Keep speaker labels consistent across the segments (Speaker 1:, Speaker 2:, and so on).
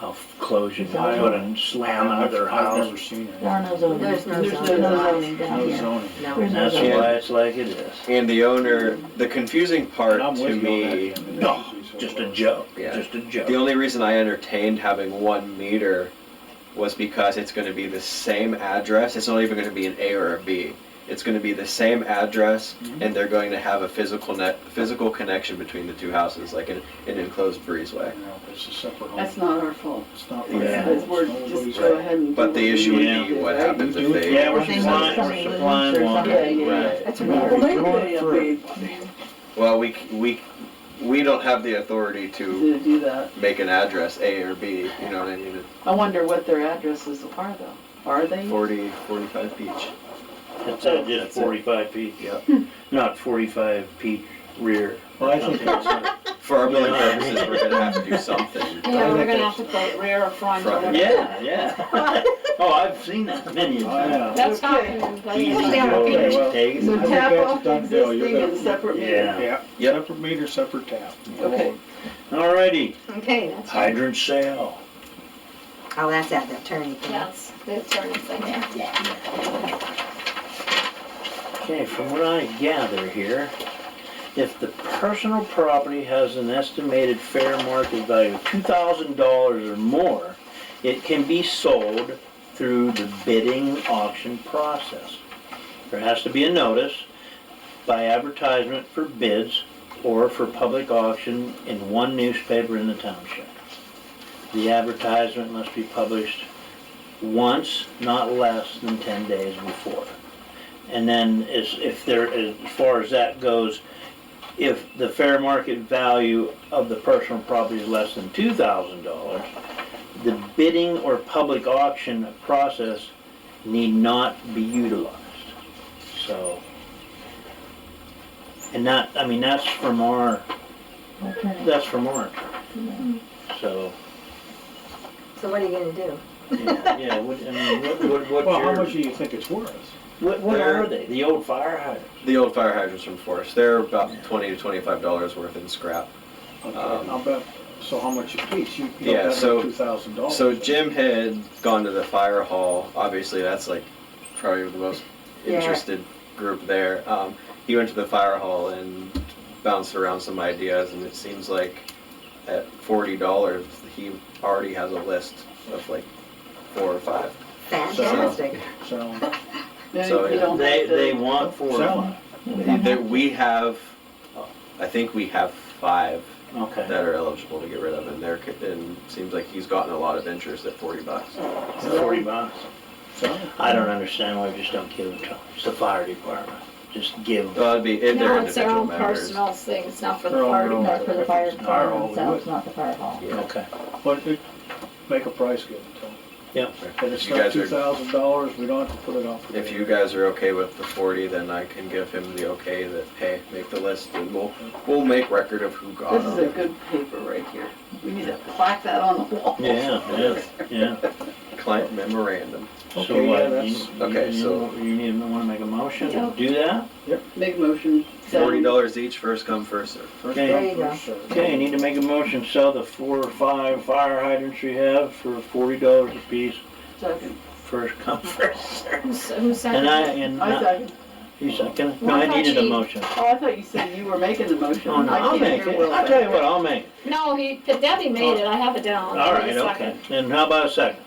Speaker 1: I'll close your door and slam another
Speaker 2: I've
Speaker 1: house.
Speaker 2: never seen it.
Speaker 3: There are no zoning.
Speaker 4: There's no zoning.
Speaker 3: zoning down
Speaker 2: No
Speaker 3: here.
Speaker 2: zoning.
Speaker 3: There's
Speaker 4: No,
Speaker 1: And
Speaker 3: no
Speaker 1: that's
Speaker 3: zoning.
Speaker 1: why it's like it is.
Speaker 5: And the owner, the confusing part
Speaker 2: And I'm
Speaker 5: to
Speaker 2: with you on
Speaker 5: me,
Speaker 2: that. Ken.
Speaker 1: No, just a joke,
Speaker 5: Yeah.
Speaker 1: just a
Speaker 5: the
Speaker 1: joke.
Speaker 5: only reason I entertained having one meter was because it's going to be the same address. It's not even going to be an A or a B. It's going to be the same address,
Speaker 2: Mm-hmm.
Speaker 5: and they're going to have a physical net, physical connection between the two houses, like an, an enclosed breezeway.
Speaker 2: No, It's a separate home.
Speaker 6: That's not our fault.
Speaker 2: It's not.
Speaker 1: Yeah.
Speaker 2: my fault.
Speaker 6: It's- it's- We're
Speaker 2: It's
Speaker 6: just
Speaker 2: nobody's
Speaker 6: go
Speaker 2: fault.
Speaker 6: ahead and. do
Speaker 5: But the issue would
Speaker 1: Yeah.
Speaker 5: be what
Speaker 6: Right?
Speaker 5: happens
Speaker 2: You
Speaker 5: if
Speaker 2: do it-
Speaker 5: they.
Speaker 1: Yeah,
Speaker 3: I
Speaker 1: we're
Speaker 3: think
Speaker 1: supplying,
Speaker 3: that's
Speaker 1: we're
Speaker 3: something
Speaker 1: supplying
Speaker 3: that's
Speaker 1: one.
Speaker 3: something.
Speaker 6: Yeah, yeah.
Speaker 4: that's
Speaker 2: Well,
Speaker 4: weird.
Speaker 2: we going
Speaker 6: Yeah,
Speaker 2: through.
Speaker 6: they-
Speaker 5: Well, we c- we we don't have the authority to
Speaker 6: To do that.
Speaker 5: make an address A or B. You know what I mean?
Speaker 6: I wonder what their addresses are though. Are they?
Speaker 5: 40, 45 each.
Speaker 1: It's uh, just
Speaker 5: That's it.
Speaker 1: forty-five feet,
Speaker 5: Yep.
Speaker 1: not forty-five feet rear.
Speaker 2: Well, I think that's not-
Speaker 5: For our billing
Speaker 1: Yeah.
Speaker 5: purposes, we're gonna have to do something.
Speaker 4: Yeah, we're gonna have to put rear or front or
Speaker 5: Front.
Speaker 4: whatever.
Speaker 1: Yeah, yeah. Oh, I've seen that
Speaker 6: Oh,
Speaker 1: many a
Speaker 2: I
Speaker 1: time.
Speaker 2: know.
Speaker 4: That's happening.
Speaker 1: Easy
Speaker 4: That's
Speaker 1: go,
Speaker 4: happening.
Speaker 2: Oh, well,
Speaker 1: take
Speaker 6: So
Speaker 1: it.
Speaker 2: think
Speaker 6: tap
Speaker 2: that's
Speaker 6: off the
Speaker 2: done, Bill. You're
Speaker 6: existing and
Speaker 2: gonna-
Speaker 6: separate meter.
Speaker 1: Yeah.
Speaker 2: Yeah,
Speaker 5: Yep.
Speaker 2: separate meter, separate tap.
Speaker 6: Okay.
Speaker 1: Alrighty,
Speaker 4: Okay, that's,
Speaker 1: hydrant sale.
Speaker 7: Oh, that's at the attorney thing.
Speaker 4: that's, that's our next thing.
Speaker 1: Okay, from what I gather here, if the personal property has an estimated fair market value of two thousand dollars or more, it can be sold through the bidding auction process. There has to be a notice by advertisement for bids or for public auction in one newspaper in the township. The advertisement must be published once, not less than ten days before. And then as, if there, as far as that goes, if the fair market value of the personal property is less than two thousand dollars, the bidding or public auction process need not be utilized. So, and that, I mean, that's from our,
Speaker 3: Alternative.
Speaker 1: that's from our attorney. So,
Speaker 7: So what are you gonna do?
Speaker 1: yeah, yeah, what, I mean, what, what, what's
Speaker 2: Well, how much do
Speaker 1: your-
Speaker 2: you think it's worth?
Speaker 1: what, what are they? The old fire hydrants?
Speaker 5: The old fire hydrants from Forest, they're about twenty to twenty-five dollars worth in scrap.
Speaker 2: Okay,
Speaker 5: Um,
Speaker 2: I'll bet, so how much a piece? You
Speaker 5: Yeah,
Speaker 2: got
Speaker 5: so-
Speaker 2: that two thousand dollars.
Speaker 5: So Jim had gone to the fire hall. Obviously, that's like probably the most
Speaker 7: Yeah.
Speaker 5: interested group there. Um, he went to the fire hall and bounced around some ideas, and it seems like at forty dollars, he already has a list of like four or five.
Speaker 7: Fantastic.
Speaker 2: So,
Speaker 6: Then
Speaker 5: So,
Speaker 6: you
Speaker 5: yeah.
Speaker 6: don't
Speaker 1: They,
Speaker 6: have to-
Speaker 1: they want four of
Speaker 2: so,
Speaker 1: them.
Speaker 5: That we have, I think we have five
Speaker 1: Okay.
Speaker 5: that are eligible to get rid of, and there, and seems like he's gotten a lot of interest at forty bucks.
Speaker 4: Oh.
Speaker 1: Forty bucks.
Speaker 2: so,
Speaker 1: I don't understand why we just don't give them to them. It's the fire department. Just give them.
Speaker 5: Well, it'd be, if they're
Speaker 4: No, it's their
Speaker 5: individual
Speaker 4: own
Speaker 5: members.
Speaker 4: personal thing, it's not for the
Speaker 2: Their own
Speaker 4: fire
Speaker 2: little-
Speaker 3: Not for the
Speaker 2: If
Speaker 3: fire
Speaker 2: it's fire hall,
Speaker 3: department
Speaker 2: we
Speaker 3: themselves,
Speaker 2: would.
Speaker 3: not the fire hall.
Speaker 5: Yeah.
Speaker 1: Okay.
Speaker 2: but it, make a price give and tell.
Speaker 1: Yep.
Speaker 2: And it's
Speaker 5: If you
Speaker 2: not
Speaker 5: guys
Speaker 2: two
Speaker 5: are,
Speaker 2: thousand dollars, we don't have to put it off. for
Speaker 5: if
Speaker 2: bid.
Speaker 5: you guys are okay with the forty, then I can give him the okay that, hey, make the list, and we'll, we'll make record of who got
Speaker 6: This is a
Speaker 5: them.
Speaker 6: good paper right here. We need to plaque that on the wall.
Speaker 1: Yeah, yeah, yeah.
Speaker 5: Client memorandum.
Speaker 1: So
Speaker 2: Okay, yeah,
Speaker 1: what, you,
Speaker 2: that's,
Speaker 5: okay, so-
Speaker 1: you, you need, wanna make a motion to do that?
Speaker 6: Make a motion.
Speaker 5: Forty dollars each, first come, first served.
Speaker 2: first
Speaker 1: Okay.
Speaker 7: There you
Speaker 2: come,
Speaker 7: go.
Speaker 2: first served.
Speaker 1: Okay, you need to make a motion, sell the four or five fire hydrants you have for forty dollars a piece,
Speaker 6: Second.
Speaker 1: first come, first served.
Speaker 4: Who's, who's second?
Speaker 1: And I, and
Speaker 6: I
Speaker 1: I,
Speaker 6: second.
Speaker 1: you second? No,
Speaker 4: Well,
Speaker 1: I
Speaker 4: I thought
Speaker 1: needed a
Speaker 4: she-
Speaker 1: motion.
Speaker 6: Oh, I thought you said you were making the motion.
Speaker 1: Oh, no,
Speaker 6: I
Speaker 1: I'll
Speaker 6: can't
Speaker 1: make
Speaker 6: hear
Speaker 1: it.
Speaker 6: Will
Speaker 1: I'll tell you
Speaker 6: second.
Speaker 1: what, I'll make it.
Speaker 4: No, he, but Debbie made it, I have it down.
Speaker 1: All
Speaker 4: Give
Speaker 1: right,
Speaker 4: me a second.
Speaker 1: okay. And how about a second?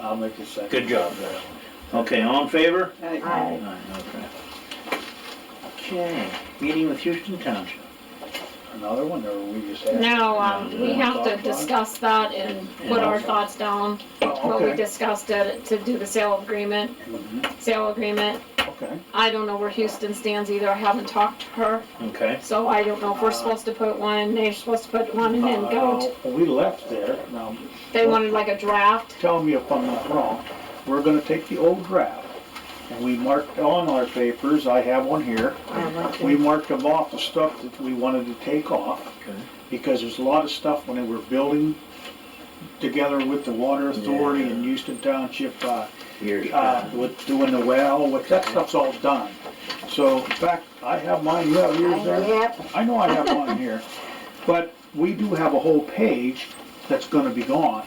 Speaker 2: I'll make the second.
Speaker 1: Good job, Darrell. Okay, all in favor?
Speaker 6: Right.
Speaker 3: I,
Speaker 1: Okay. Okay, meeting with Houston Township.
Speaker 2: Another one, or we just had?
Speaker 4: Now, um, we have to
Speaker 2: Thought about it?
Speaker 4: discuss that and put our thoughts down,
Speaker 2: Oh,
Speaker 4: what we
Speaker 2: Okay, Mm-hmm.
Speaker 4: discussed it, to do the sale agreement, sale agreement.
Speaker 2: okay.
Speaker 4: I don't know where Houston stands either, I haven't talked to her,
Speaker 1: Okay.
Speaker 4: so I don't know if we're supposed to put one, they're supposed to put one and then go.
Speaker 2: Uh, We left there, now,
Speaker 4: to- They wanted like a draft,
Speaker 2: tell me if I'm not wrong, we're gonna take the old draft, and we marked on our papers, I have one here,
Speaker 7: I want
Speaker 2: we
Speaker 7: to.
Speaker 2: marked them off, the stuff that we wanted to take off,
Speaker 1: Okay.
Speaker 2: because there's a lot of stuff when they were building together with the water authority and Houston Township, uh,
Speaker 1: Years
Speaker 2: uh,
Speaker 1: past.
Speaker 2: with doing the well, with, that stuff's all done. So, in fact, I have mine, you have yours there?
Speaker 7: Yep.
Speaker 2: I know I have mine here, but we do have a whole page that's gonna be gone.